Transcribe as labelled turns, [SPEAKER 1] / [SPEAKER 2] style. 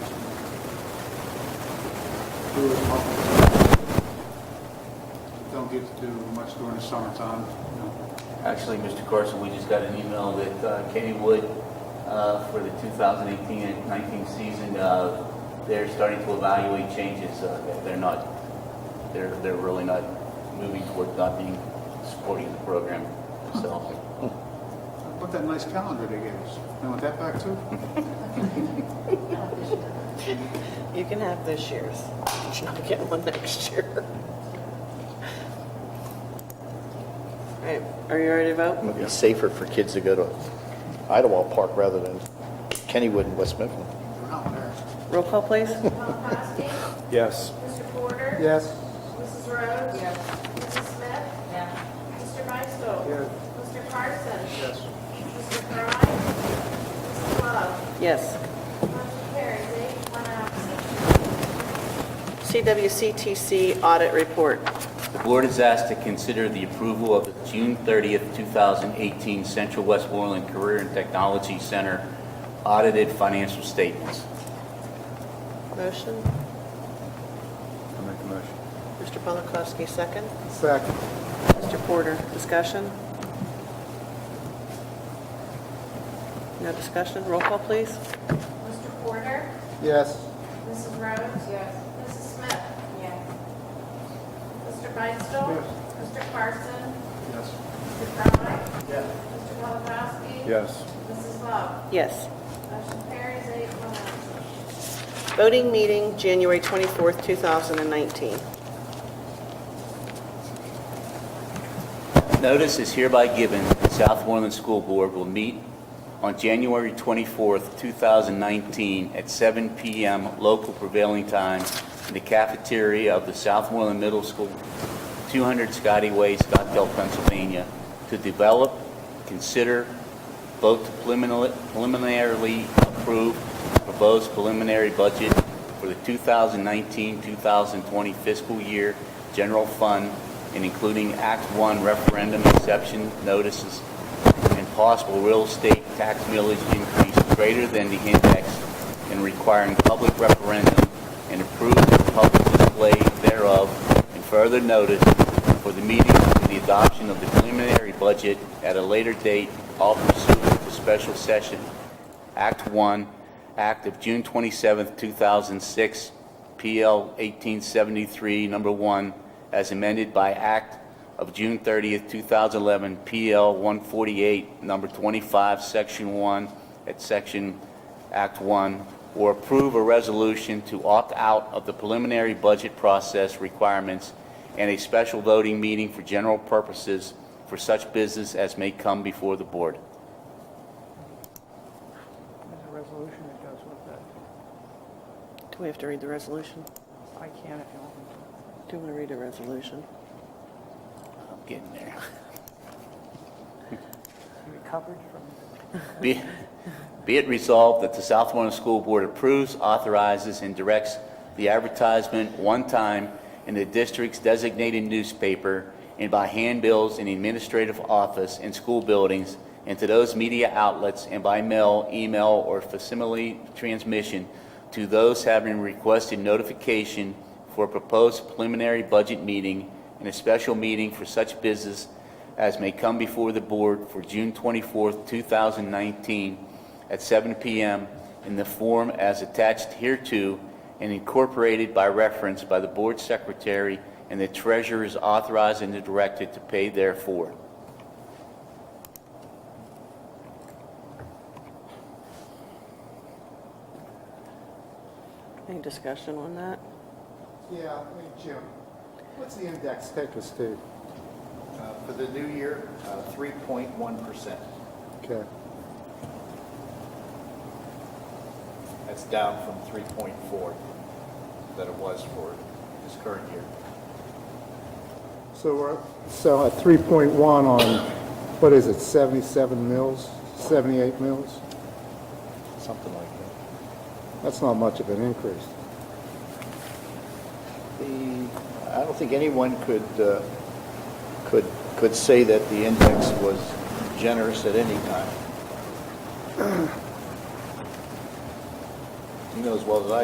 [SPEAKER 1] do it public. Don't get to do much during the summertime, you know.
[SPEAKER 2] Actually, Mr. Carson, we just got an email that uh, Kenny Wood, uh, for the 2018-19 season, uh, they're starting to evaluate changes. Uh, they- They're not, they're, they're really not moving toward not being supporting the program themselves.
[SPEAKER 1] What that nice calendar they gave us? You want that back too?
[SPEAKER 3] You can have this year's. You're not getting one next year. All right, are you ready to vote?
[SPEAKER 4] It'd be safer for kids to go to Idlewild Park rather than Kennywood and West Mifflin.
[SPEAKER 1] They're not there.
[SPEAKER 3] Roll call, please.
[SPEAKER 5] Tom Costin?
[SPEAKER 6] Yes.
[SPEAKER 5] Mr. Porter?
[SPEAKER 1] Yes.
[SPEAKER 5] Mrs. Rhodes? Yes. Mrs. Smith? Yes. Mr. Beistel?
[SPEAKER 1] Yes.
[SPEAKER 5] Mr. Carson?
[SPEAKER 1] Yes.
[SPEAKER 5] Mr. Frye? Mrs. Love?
[SPEAKER 3] Yes.
[SPEAKER 5] Motion carries eight, one absent.
[SPEAKER 3] CWCTC audit report.
[SPEAKER 2] The board is asked to consider the approval of the June 30th, 2018 Central Westmoreland Career and Technology Center audited financial statements.
[SPEAKER 3] Motion?
[SPEAKER 6] I make the motion.
[SPEAKER 3] Mr. Polakowski, second.
[SPEAKER 1] Second.
[SPEAKER 3] Mr. Porter, discussion? No discussion? Roll call, please.
[SPEAKER 5] Mr. Porter?
[SPEAKER 1] Yes.
[SPEAKER 5] Mrs. Rhodes? Yes. Mrs. Smith? Yes. Mr. Beistel?
[SPEAKER 1] Yes.
[SPEAKER 5] Mr. Carson?
[SPEAKER 1] Yes.
[SPEAKER 5] Mr. Frye? Yes. Mr. Polakowski?
[SPEAKER 6] Yes.
[SPEAKER 5] Mrs. Love?
[SPEAKER 3] Yes.
[SPEAKER 5] Motion carries eight, one absent.
[SPEAKER 3] Voting meeting, January 24th, 2019.
[SPEAKER 2] Notice is hereby given that Southmoreland School Board will meet on January 24th, 2019, at 7 p.m. local prevailing time in the cafeteria of the Southmoreland Middle School, 200 Scotty Way, Scottsdale, Pennsylvania, to develop, consider, vote to preliminarily- preliminarily approve proposed preliminary budget for the 2019-2020 fiscal year general fund and including Act 1 referendum exception notices and possible real estate tax millage increase greater than the index and requiring public referendum and approved public display thereof and further notice for the meeting for the adoption of the preliminary budget at a later date, all pursuant to special session, Act 1, Act of June 27, 2006, PL 1873, Number 1, as amended by Act of June 30, 2011, PL 148, Number 25, Section 1, at Section Act 1, or approve a resolution to opt out of the preliminary budget process requirements and a special voting meeting for general purposes for such business as may come before the board.
[SPEAKER 7] There's a resolution that goes with that.
[SPEAKER 3] Do we have to read the resolution?
[SPEAKER 7] I can if you want me to.
[SPEAKER 3] Do you want to read a resolution?
[SPEAKER 2] I'm getting there.
[SPEAKER 7] You recovered from,
[SPEAKER 2] Be be it resolved that the Southmoreland School Board approves, authorizes, and directs the advertisement one time in the district's designated newspaper and by handbills in the administrative office and school buildings and to those media outlets and by mail, email, or facsimile transmission to those having requested notification for a proposed preliminary budget meeting and a special meeting for such business as may come before the board for June 24th, 2019, at 7 p.m. in the form as attached hereto and incorporated by reference by the board secretary and the treasurer is authorized and directed to pay therefor.
[SPEAKER 3] Any discussion on that?
[SPEAKER 1] Yeah, hey, Jim, what's the index take us to?
[SPEAKER 4] uh, For the new year, Uh, 3.1%.
[SPEAKER 1] Okay.
[SPEAKER 4] That's down from 3.4 that it was for this current year.
[SPEAKER 8] So we're, so at 3.1 on, what is it, 77 mills, 78 mills?
[SPEAKER 4] Something like that.
[SPEAKER 8] That's not much of an increase.
[SPEAKER 4] The, I don't think anyone could, uh, could, could say that the index was generous at any time. You know as well as I